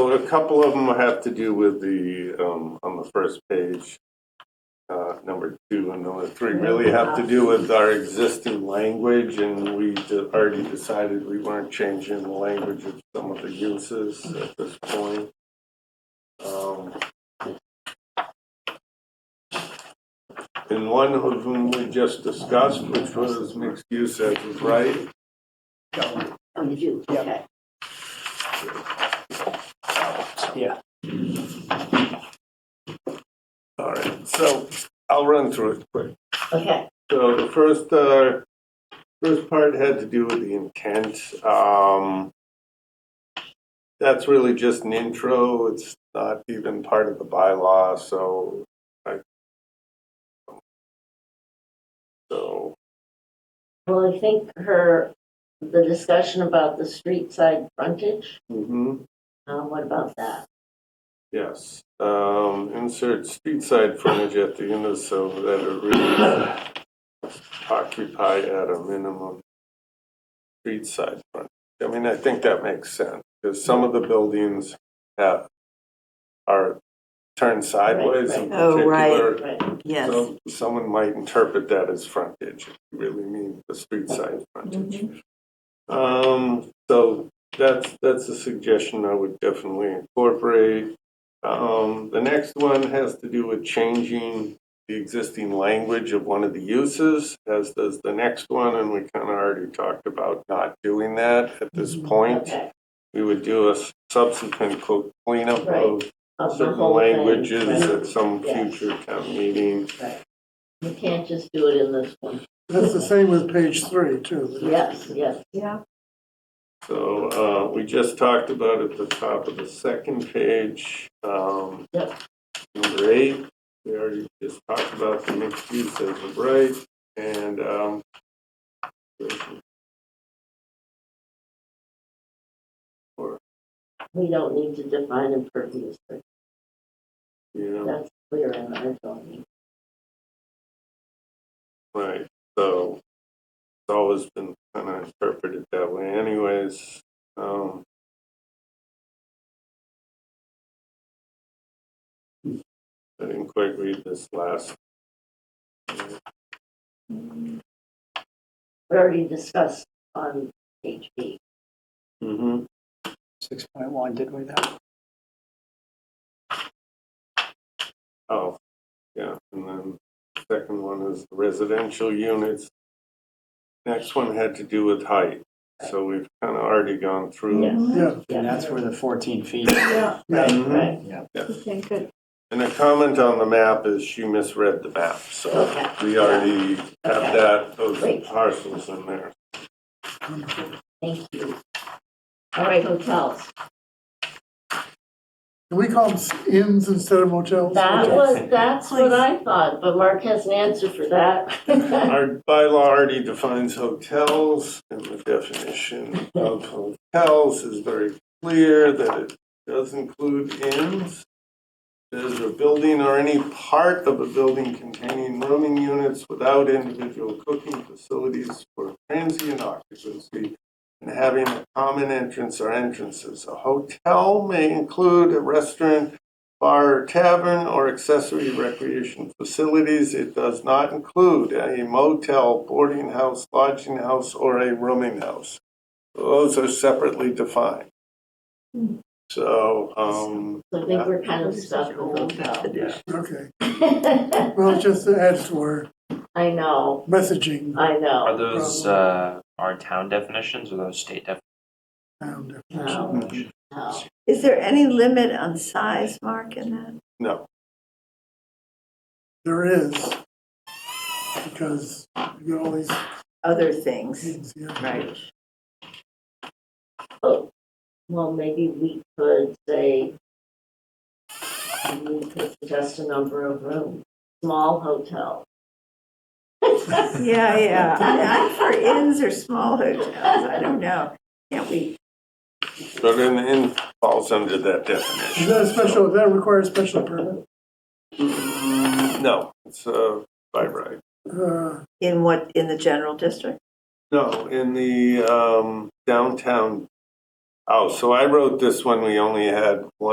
Well, a couple of them have to do with the, um, on the first page, uh, number two and number three really have to do with our existing language, and we d- already decided we weren't changing the language of some of the uses at this point. Um, And one of them we just discussed, which was mixed use as of right, Oh, you do, Yeah. okay. all right, so I'll run through it quick. Okay, So the first, uh, first part had to do with the intent. Um, that's really just an intro. It's not even part of the bylaw, so I. So, well, I think her, the discussion about the street side frontage, hmm uh, what about that? yes. Um, insert street side frontage at the end of so that it really occupy at a minimum street side frontage. I mean, I think that makes sense, because some of the buildings have, are turned sideways in right. Oh, right. particular. Right, Yes. So someone might interpret that as frontage, if you really mean the street side frontage. Mm-hmm. Um, so that's, that's a suggestion I would definitely incorporate. Um, the next one has to do with changing the existing language of one of the uses, as does the next one, and we kind of already talked about not doing that at this Mm-hmm. point. okay. We would do a subsequent quote cleanup of Right. Of the certain whole thing, languages right, at some Yeah. future town meeting. right. You can't just do it in this one. That's the same with page three, too. Yes, yes, Yeah. So uh, we just talked about at the top of the second page, um, Yep. number eight, we already just talked about the mixed use as of right, and um, we don't need to define impervious, surface. you know, that's clear in our zoning. right, so it's always been kind of interpreted that way anyways. Um, I didn't quite read this last We already discussed on HB. Mm-hmm. Six point one, did we that? Oh, yeah, and then second one is residential units. Next one had to do with height, so we've kind of already gone through. Yes, Yeah, And that's where the 14 feet. Yeah, yeah, Mhm. right, okay, good. And a comment on the map is she misread the map, so Okay. we already have Okay. that, those Great. parcels in there. thank you. All right, hotels. can we call them inns instead of motels? That Motels. was, that's what I thought, but Mark has an answer for that. Our bylaw already defines hotels, and the definition of hotels is very clear that it does include inns. There's a building or any part of a building containing rooming units without individual cooking facilities for transient occupancy and having a common entrance or entrances. A hotel may include a restaurant, bar, or tavern, or accessory recreation facilities. It does not include a motel, boarding house, lodging house, or a rooming house. Those are separately defined. So, um, So I think we're kind of stuck with hotel. Okay, well, it just adds to our I know, messaging. I Are know. those uh, our town definitions or those state definitions? and- No, no. Is there any limit on size, Mark, in that? no, There is, because you got all these Other things? inns, yeah. Right. Oh, Well, maybe we could say, we could suggest a number of rooms, small hotel. Yeah, yeah. I- I'm for inns or small hotels, I don't know. Can't we? but an inn falls under that definition. Is that a special, does that require a special permit? Mm, No, it's uh, by right. Uh, In what, in the general district? No, in the um, downtown Oh, so I wrote this one, we only had one.